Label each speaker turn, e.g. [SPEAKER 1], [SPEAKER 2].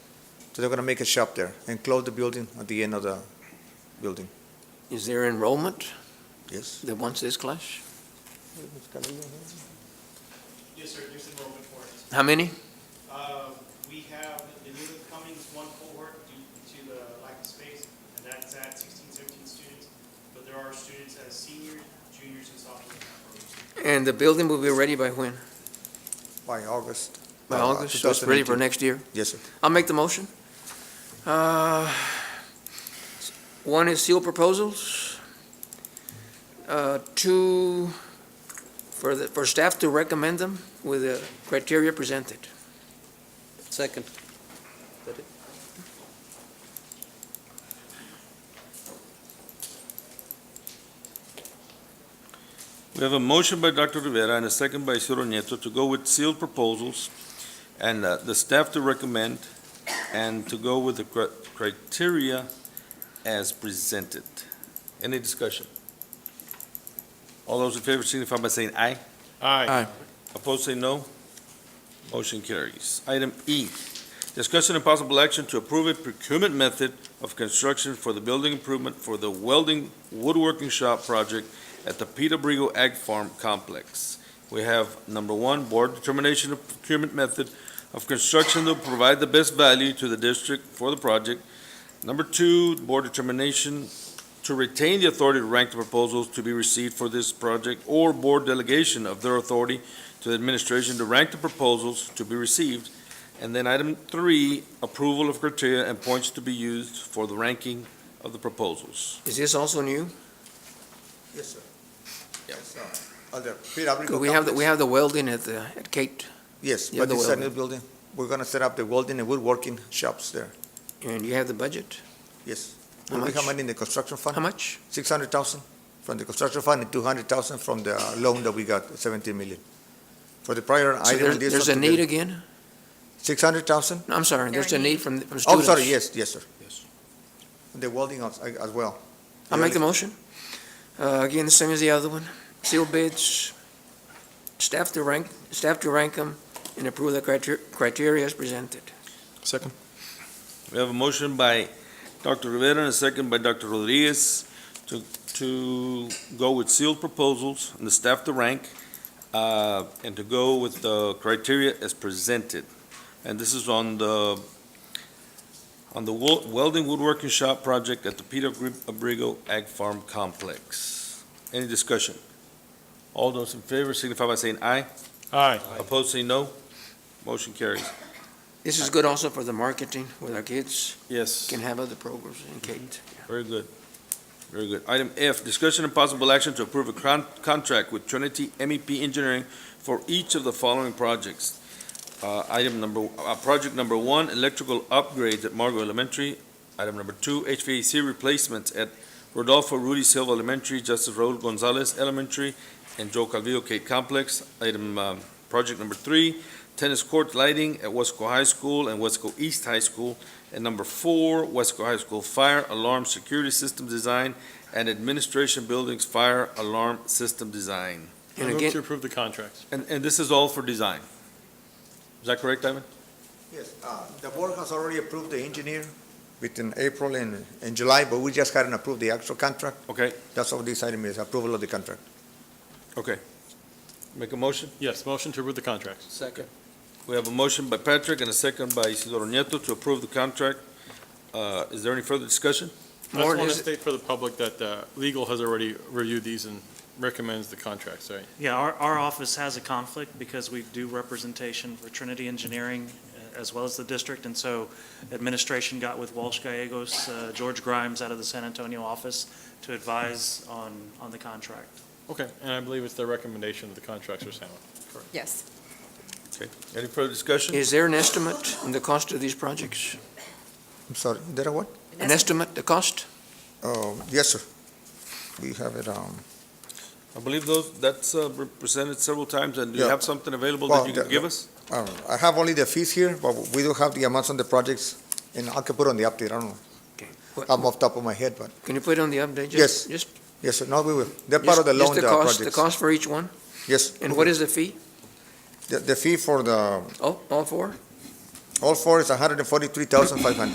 [SPEAKER 1] So they're gonna make a shop there and close the building at the end of the building.
[SPEAKER 2] Is there enrollment
[SPEAKER 1] Yes.
[SPEAKER 2] that wants this class?
[SPEAKER 3] Yes, sir, there's enrollment for it.
[SPEAKER 2] How many?
[SPEAKER 3] Uh, We have the new Cummings one cohort due to the lack of space, and that's at 16, 17 students, but there are students as seniors, juniors, and sophomores. in that program.
[SPEAKER 2] And the building will be ready by when?
[SPEAKER 1] By August.
[SPEAKER 2] By
[SPEAKER 1] uh,
[SPEAKER 2] August, Oh, so it's ready for
[SPEAKER 1] 2018.
[SPEAKER 2] next year?
[SPEAKER 1] Yes, sir.
[SPEAKER 2] I'll make the motion. Uh, One is sealed proposals. Uh, Two, for the, for staff to recommend them with the criteria presented.
[SPEAKER 4] Second.
[SPEAKER 5] We have a motion by Dr. Rivera and a second by Isidro Nieto to go with sealed proposals and uh, the staff to recommend and to go with the cri- criteria as presented. Any discussion? All those in favor signify by saying aye.
[SPEAKER 2] Aye.
[SPEAKER 5] Opposed, say no. Motion carries. Item E, discussion and possible action to approve a procurement method of construction for the building improvement for the welding woodworking shop project at the Peter Brigo Ag Farm Complex. We have number one, board determination of procurement method of construction to provide the best value to the district for the project. Number two, board determination to retain the authority to rank the proposals to be received for this project or board delegation of their authority to the administration to rank the proposals to be received. And then item three, approval of criteria and points to be used for the ranking of the proposals.
[SPEAKER 2] Is this also new?
[SPEAKER 1] Yes, sir. Yes, sir. At the PW
[SPEAKER 2] 'Cause we have, the-
[SPEAKER 1] complex.
[SPEAKER 2] we have the welding at the, at Kate,
[SPEAKER 1] Yes,
[SPEAKER 2] Yeah,
[SPEAKER 1] but
[SPEAKER 2] the
[SPEAKER 1] this is a
[SPEAKER 2] welding.
[SPEAKER 1] new building. We're gonna set up the welding and woodworking shops there.
[SPEAKER 2] and you have the budget.
[SPEAKER 1] Yes.
[SPEAKER 2] How
[SPEAKER 1] We have
[SPEAKER 2] much?
[SPEAKER 1] money in the construction fund.
[SPEAKER 2] How much?
[SPEAKER 1] Six hundred thousand from the construction fund and two hundred thousand from the loan that we got, seventeen million. For the prior
[SPEAKER 2] So
[SPEAKER 1] item.
[SPEAKER 2] there's, there's a need again?
[SPEAKER 1] Six hundred thousand?
[SPEAKER 2] No, I'm sorry, there's a
[SPEAKER 6] There are
[SPEAKER 2] need
[SPEAKER 6] needs.
[SPEAKER 2] from, from
[SPEAKER 1] Oh,
[SPEAKER 2] students.
[SPEAKER 1] sorry, yes, yes, sir. Yes. The welding as, as well.
[SPEAKER 2] I'll make the
[SPEAKER 1] Yes.
[SPEAKER 2] motion. Uh, Again, the same as the other one. Sealed bids, staff to rank, staff to rank them and approve the criter- criteria as presented.
[SPEAKER 4] Second.
[SPEAKER 5] We have a motion by Dr. Rivera and a second by Dr. Rodriguez to, to go with sealed proposals and the staff to rank, uh, and to go with the criteria as presented. And this is on the, on the wo- welding woodworking shop project at the Peter Gri- Abrigo Ag Farm Complex. Any discussion? All those in favor signify by saying aye. Aye. Opposed, say no. Motion carries.
[SPEAKER 2] This is good also for the marketing with our kids,
[SPEAKER 5] Yes.
[SPEAKER 2] can have other programs in Kate.
[SPEAKER 5] Very good. Very good. Item F, discussion and possible action to approve a con- contract with Trinity MEP Engineering for each of the following projects. Uh, item number, uh, project number one, electrical upgrades at Margot Elementary. Item number two, HVAC replacements at Rodolfo Rudy Silva Elementary, Justice Raul Gonzalez Elementary, and Joe Calvillo K Complex. Item, um, project number three, tennis court lighting at Wesco High School and Wesco East High School. And number four, Wesco High School Fire Alarm Security System Design and Administration Buildings Fire Alarm System Design.
[SPEAKER 2] And
[SPEAKER 4] I move to
[SPEAKER 2] again,
[SPEAKER 4] approve the contracts.
[SPEAKER 5] And, and this is all for design. Is that correct, Ivan?
[SPEAKER 1] Yes, uh, the board has already approved the engineer between April and, and July, but we just hadn't approved the actual contract.
[SPEAKER 5] Okay,
[SPEAKER 1] That's all this item is, approval of the contract.
[SPEAKER 5] okay. Make a motion?
[SPEAKER 4] Yes, motion to approve the contracts.
[SPEAKER 5] Second. We have a motion by Patrick and a second by Isidoro Nieto to approve the contract. Uh, is there any further discussion?
[SPEAKER 4] I just
[SPEAKER 2] Warren,
[SPEAKER 4] want to
[SPEAKER 2] is it-
[SPEAKER 4] state for the public that uh, legal has already reviewed these and recommends the contracts, right?
[SPEAKER 7] Yeah, our, our office has a conflict because we do representation for Trinity Engineering uh, as well as the district, and so administration got with Walsh Gallegos, uh, George Grimes out of the San Antonio office to advise on, on the contract.
[SPEAKER 4] Okay, and I believe it's the recommendation that the contracts are sound.
[SPEAKER 6] Yes.
[SPEAKER 5] Okay, any further discussion?
[SPEAKER 2] is there an estimate on the cost of these projects?
[SPEAKER 1] I'm sorry, did I what?
[SPEAKER 2] An estimate, the cost?
[SPEAKER 1] Oh, yes, sir. We have it, um,
[SPEAKER 5] I believe those, that's uh, presented several times, and do you
[SPEAKER 1] Yeah.
[SPEAKER 5] have something available
[SPEAKER 1] Well,
[SPEAKER 5] that you can
[SPEAKER 1] the-
[SPEAKER 5] give us?
[SPEAKER 1] um, I have only the fees here, but we do have the amounts on the projects, and I can put on the update, I don't know.
[SPEAKER 2] What-
[SPEAKER 1] I'm off top of my head, but,
[SPEAKER 2] Can you put it on the update? Just-
[SPEAKER 1] Yes.
[SPEAKER 2] Just,
[SPEAKER 1] yes, sir, no, we will. They're part
[SPEAKER 2] just
[SPEAKER 1] of the
[SPEAKER 2] just
[SPEAKER 1] loan,
[SPEAKER 2] the
[SPEAKER 1] the
[SPEAKER 2] cost, the
[SPEAKER 1] projects.
[SPEAKER 2] cost for each one?
[SPEAKER 1] Yes.
[SPEAKER 2] And what is the fee?
[SPEAKER 1] The, the fee for the,
[SPEAKER 2] Oh, all four?
[SPEAKER 1] All four is 143,500.